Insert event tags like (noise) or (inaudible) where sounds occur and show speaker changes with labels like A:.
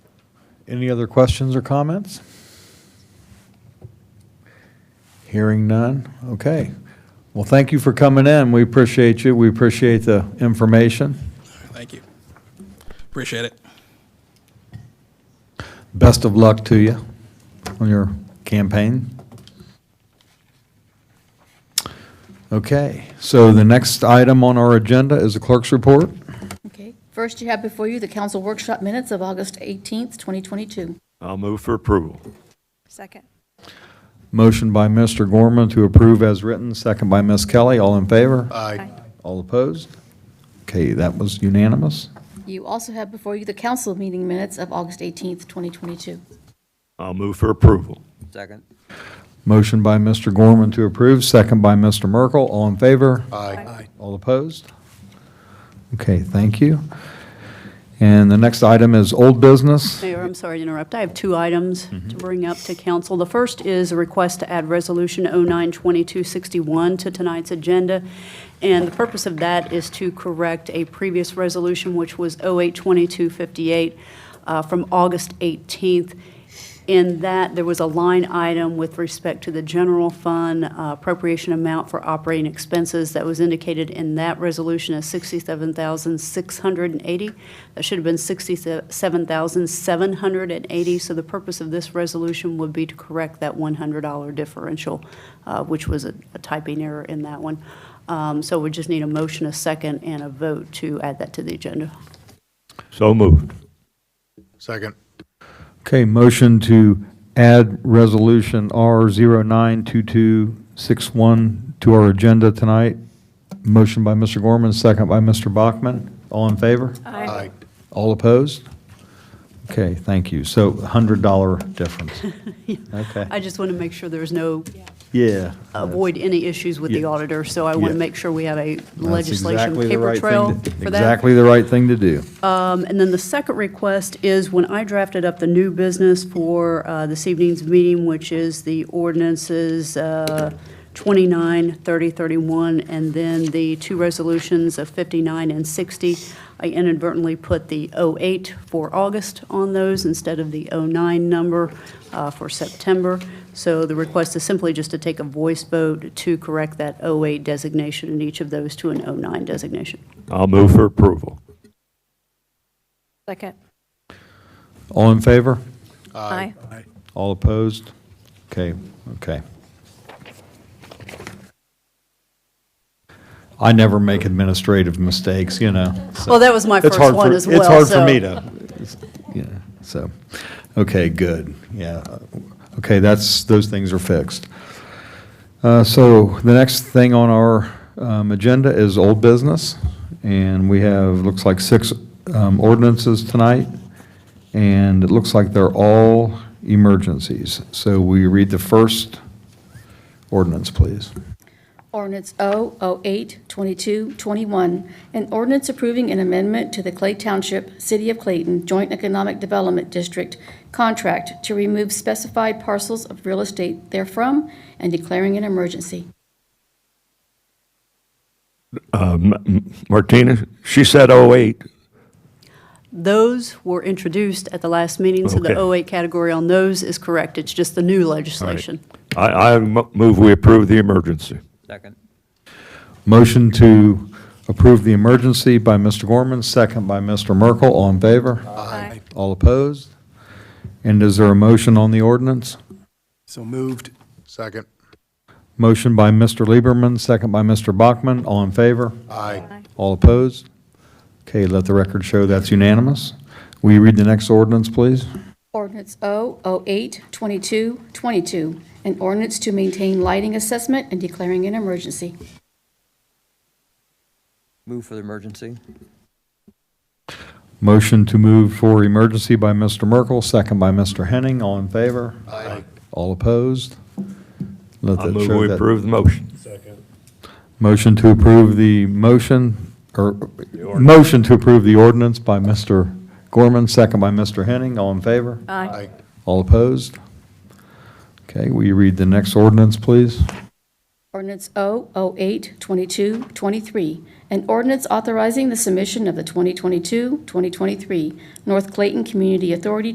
A: Any other questions or comments? Hearing none? Okay. Well, thank you for coming in. We appreciate you. We appreciate the information.
B: Thank you. Appreciate it.
A: Best of luck to you on your campaign. Okay, so the next item on our agenda is the clerk's report.
C: Okay. First, you have before you the council workshop minutes of August 18th, 2022.
D: I'll move for approval.
E: Second.
A: Motion by Mr. Gorman to approve as written, second by Ms. Kelly. All in favor?
B: Aye.
A: All opposed? Okay, that was unanimous.
C: You also have before you the council meeting minutes of August 18th, 2022.
D: I'll move for approval.
F: Second.
A: Motion by Mr. Gorman to approve, second by Mr. Merkel. All in favor?
B: Aye.
A: All opposed? Okay, thank you. And the next item is old business.
G: Mayor, I'm sorry to interrupt. I have two items to bring up to council. The first is a request to add Resolution 092261 to tonight's agenda. And the purpose of that is to correct a previous resolution, which was 082258 uh, from August 18th. In that, there was a line item with respect to the general fund uh, appropriation amount for operating expenses that was indicated in that resolution as $67,680. That should have been $67,780. So the purpose of this resolution would be to correct that $100 differential, uh, which was a a typing error in that one. Um, So we just need a motion, a second, and a vote to add that to the agenda.
D: So moved.
B: Second.
A: Okay, motion to add Resolution R092261 to our agenda tonight. Motion by Mr. Gorman, second by Mr. Bachman. All in favor?
B: Aye.
A: All opposed? Okay, thank you. So $100
B: (laughs)
A: difference. Okay.
G: I just want to make sure there's no
A: Yeah.
G: avoid any issues with the
A: Yeah.
G: auditor, so I want
A: Yeah.
G: to make sure we have a
A: That's
G: legislation
A: exactly the right
G: paper
A: thing
G: trail
A: to-
G: for that.
A: Exactly the right thing to do.
G: Um, And then the second request is when I drafted up the new business for uh, this evening's meeting, which is the ordinances uh, 29, 30, 31, and then the two resolutions of 59 and 60, I inadvertently put the 08 for August on those instead of the 09 number uh, for September. So the request is simply just to take a voice vote to correct that 08 designation in each of those to an 09 designation.
D: I'll move for approval.
E: Second.
A: All in favor?
E: Aye.
A: All opposed? Okay, okay. I never make administrative mistakes, you know, so.
G: Well, that was my
A: It's
G: first
A: hard
G: one
A: for-
G: as well.
A: It's hard for
G: so-
A: me to, it's- yeah, so, okay, good, yeah. Okay, that's, those things are fixed. Uh, So the next thing on our um, agenda is old business, and we have, looks like six um, ordinances tonight, and it looks like they're all emergencies. So we read the first ordinance, please.
C: Ordinance O082221, an ordinance approving an amendment to the Clay Township, City of Clayton Joint Economic Development District contract to remove specified parcels of real estate therefrom and declaring an emergency.
D: Martina, she said 08.
G: Those were introduced at the last meeting, so the
D: Okay.
G: 08 category on those is correct. It's just the new legislation.
D: I, I mo- move we approve the emergency.
F: Second.
A: Motion to approve the emergency by Mr. Gorman, second by Mr. Merkel. All in favor?
E: Aye.
A: All opposed? And is there a motion on the ordinance?
B: So moved. Second.
A: Motion by Mr. Lieberman, second by Mr. Bachman. All in favor?
B: Aye.
A: All opposed? Okay, let the record show that's unanimous. Will you read the next ordinance, please?
C: Ordinance O082222, an ordinance to maintain lighting assessment and declaring an emergency.
F: Move for the emergency.
A: Motion to move for emergency by Mr. Merkel, second by Mr. Henning. All in favor?
B: Aye.
A: All opposed? Let
D: I
A: that
D: move
A: show
D: we
A: that-
D: approve the motion.
A: Motion to approve the motion, or, motion to approve the ordinance by Mr. Gorman, second by Mr. Henning. All in favor?
B: Aye.
A: All opposed? Okay, will you read the next ordinance, please?
C: Ordinance O082223, an ordinance authorizing the submission of the 2022-2023 North Clayton Community Authority